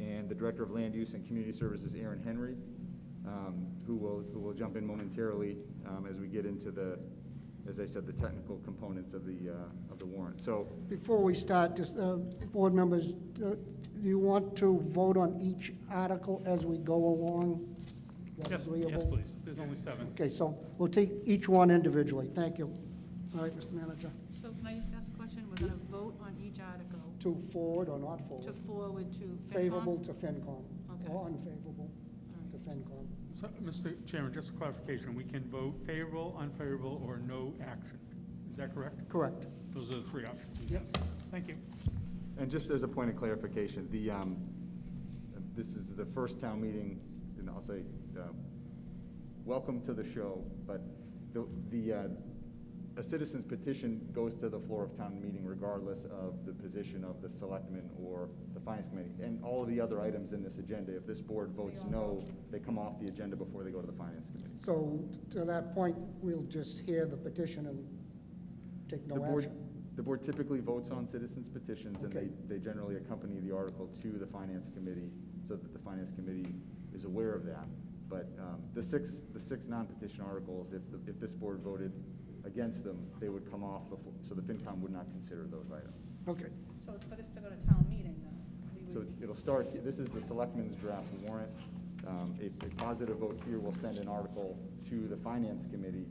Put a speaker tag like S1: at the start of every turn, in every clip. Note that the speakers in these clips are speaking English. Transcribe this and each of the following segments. S1: and the Director of Land Use and Community Services, Aaron Henry, um, who will, who will jump in momentarily um, as we get into the, as I said, the technical components of the, uh, of the warrant. So
S2: Before we start, just, uh, board members, uh, do you want to vote on each article as we go along? That's
S3: Yes, yes,
S2: agreeable?
S3: please. There's only seven.
S2: Okay, so we'll take each one individually. Thank you. All right, Mr. Manager,
S4: So can I just ask a question? We're going to vote on each article
S2: to forward or not
S4: to
S2: forward?
S4: forward to FinCom?
S2: Favorable to FinCom,
S4: Okay.
S2: or unfavorable to FinCom.
S3: So, Mr. Chairman, just a clarification, we can vote favorable, unfavorable, or no action. Is that correct?
S2: Correct.
S3: Those are the three options.
S2: Yep.
S3: Thank you.
S1: And just as a point of clarification, the, um, this is the first town meeting, and I'll say, um, welcome to the show, but the, the, uh, a citizen's petition goes to the floor of town meeting regardless of the position of the selectmen or the finance committee. And all of the other items in this agenda, if this board votes no, they come off the agenda before they go to the finance committee.
S2: So to that point, we'll just hear the petition and take
S1: The
S2: no
S1: board,
S2: action.
S1: the board typically votes on citizens' petitions, and they,
S2: Okay.
S1: they generally accompany the article to the finance committee, so that the finance committee is aware of that. But, um, the six, the six non-petition articles, if, the- if this board voted against them, they would come off before, so the FinCom would not consider those items.
S2: Okay,
S5: So it's better to go to town meeting, though. We
S1: So
S5: would-
S1: it'll start, he- this is the selectmen's draft warrant. Um, A a positive vote here will send an article to the finance committee,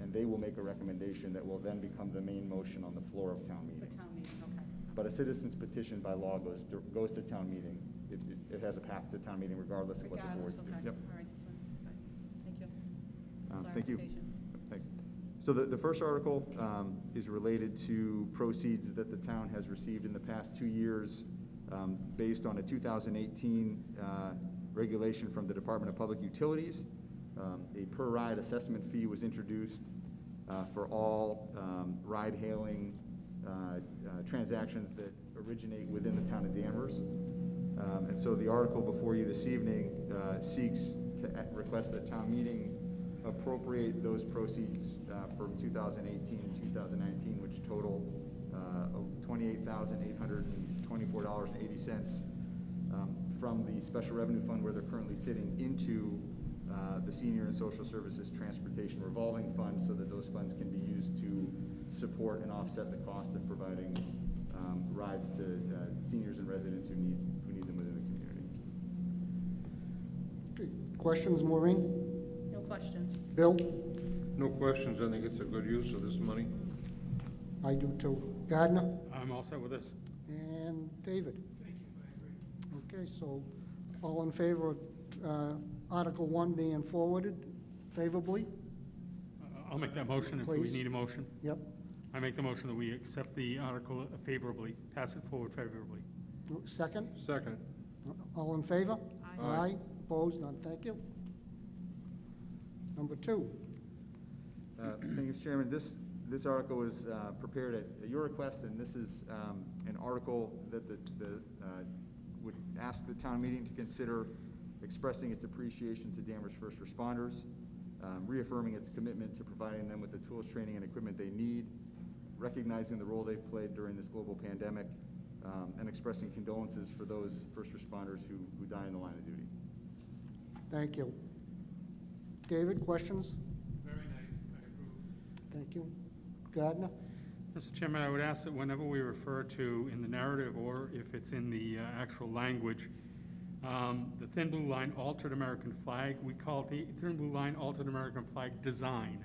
S1: and they will make a recommendation that will then become the main motion on the floor of town
S5: The
S1: meeting.
S5: town meeting, okay.
S1: But a citizen's petition by law goes, goes to town meeting. It, it- it has a path to town meeting regardless of what the
S5: Regardless,
S1: board's
S5: okay,
S1: doing.
S5: all right,
S1: Yep.
S5: so, fine. thank you.
S1: Um, Thank you.
S5: Clarification.
S1: Thanks. So the, the first article um, is related to proceeds that the town has received in the past two years um, based on a 2018 uh, regulation from the Department of Public Utilities. Um, A per-ride assessment fee was introduced uh, for all um, ride-hailing uh, uh, transactions that originate within the town of Danvers. Um, And so the article before you this evening uh, seeks to a- request that town meeting appropriate those proceeds uh, from 2018 and 2019, which total uh, $28,824.80 um, from the special revenue fund where they're currently sitting into uh, the senior and social services transportation revolving fund so that those funds can be used to support and offset the cost of providing um, rides to uh, seniors and residents who need, who need them within the community.
S2: Okay. Questions, Maureen?
S5: No questions.
S2: Bill?
S6: No questions, I think it's a good use of this money.
S2: I do too. Gardner?
S3: I'm all set with this.
S2: And David? Thank you, I agree. Okay, so all in favor of uh, Article 1 being forwarded favorably?
S3: Uh, I'll make that motion if we
S2: Please.
S3: need a motion.
S2: Yep.
S3: I make the motion that we accept the article favorably, pass it forward favorably.
S2: Second?
S6: Second,
S2: All in favor?
S4: Aye.
S6: Aye.
S2: Opposed? None, thank you. Number two,
S1: Uh, Thank you, Mr. Chairman. This, this article was uh, prepared at- at your request, and this is um, an article that the, the, uh, would ask the town meeting to consider expressing its appreciation to Danvers first responders, um, reaffirming its commitment to providing them with the tools, training, and equipment they need, recognizing the role they've played during this global pandemic, um, and expressing condolences for those first responders who, who die in the line of duty.
S2: thank you. David, questions?
S3: Very nice, I approve.
S2: Thank you. Gardner?
S3: Mr. Chairman, I would ask that whenever we refer to in the narrative or if it's in the uh, actual language, um, the thin blue line altered American flag, we call it the thin blue line altered American flag design.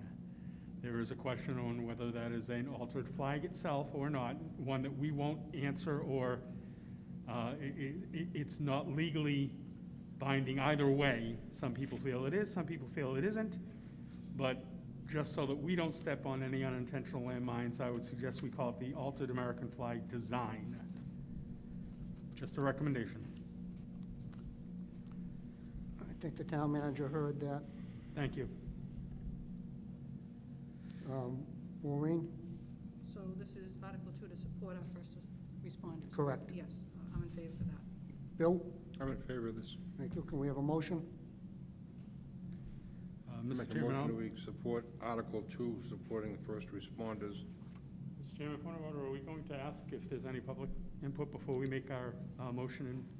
S3: There is a question on whether that is an altered flag itself or not, one that we won't answer or uh, i- i- i- it's not legally binding either way. Some people feel it is, some people feel it isn't. But just so that we don't step on any unintentional landmines, I would suggest we call it the altered American flag design. Just a recommendation.
S2: I think the town manager heard that.
S3: Thank you.
S2: Um, Maureen?
S5: So this is Article Two to support our first responders?
S2: Correct.
S5: Yes, I'm in favor of that.
S2: Bill?
S6: I'm in favor of this.
S2: Thank you. Can we have a motion?
S3: Uh,
S6: Make
S3: Mr.
S6: a
S3: Chairman,
S6: motion
S3: I'll-
S6: that we support Article Two, supporting the first responders.
S3: Mr. Chairman, point of order, are we going to ask if there's any public input before we make our uh, motion and